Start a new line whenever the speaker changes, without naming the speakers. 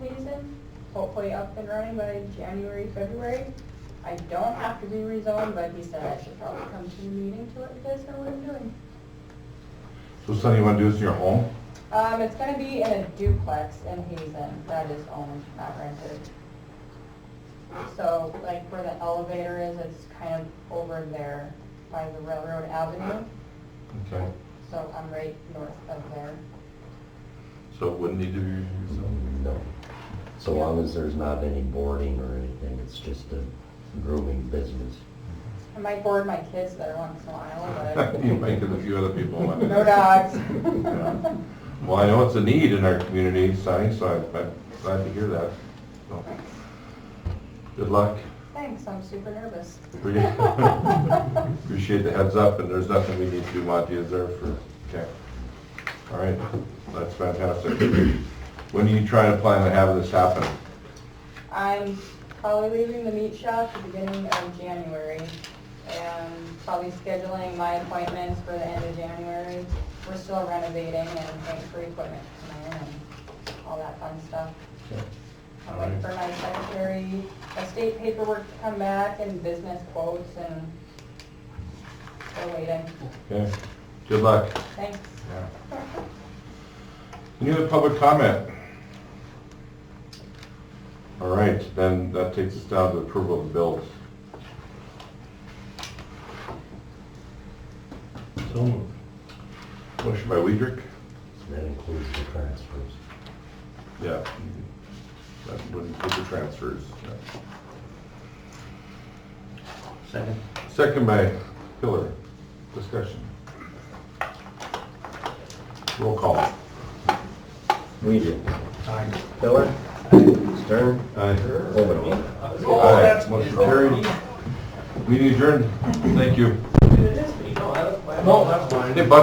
hopefully up and running by January, February. I don't have to be rezoned, but he said I should probably come to the meeting to let you guys know what I'm doing.
So something you want to do this in your home?
Um, it's gonna be in a duplex in Hazen, that is owned, not rented. So, like where the elevator is, it's kind of over there by the railroad avenue,
Okay,
so I'm right north of there.
so it wouldn't need to be rezoned?
No. So long as there's not any boarding or anything, it's just a grooming business.
I might board my kids there once in a while, but
You might get a few other people. on it.
no dogs.
Yeah. Well, I know it's a need in our community, Sonny, so I- I'm glad to hear that. So, Good luck.
Thanks, I'm super nervous.
Appreciate the heads up, and there's nothing we need to do, Monty, is there for, okay. All right, that's fantastic. When are you trying to plan on having this happen?
I'm probably leaving the meat shop at the beginning of January and probably scheduling my appointments for the end of January. We're still renovating and paying for equipment coming in and all that fun stuff. I'm waiting for my secretary, estate paperwork to come back and business quotes and still waiting.
Okay, good luck.
Thanks.
Any other public comment? All right, then that takes us down to approval of the bills.
So moved.
Motion by Weidrich?
That includes the transfers.
Yeah. Mm-hmm. That would include the transfers.
Second.
Second by Pillar. Discussion. Roll call.
Weidrich. Aye. Miller. Stern.
Aye.
Overall.
Aye. Motion carried. Meeting adjourned. Thank you.
No, that's fine.
Hey, Buck,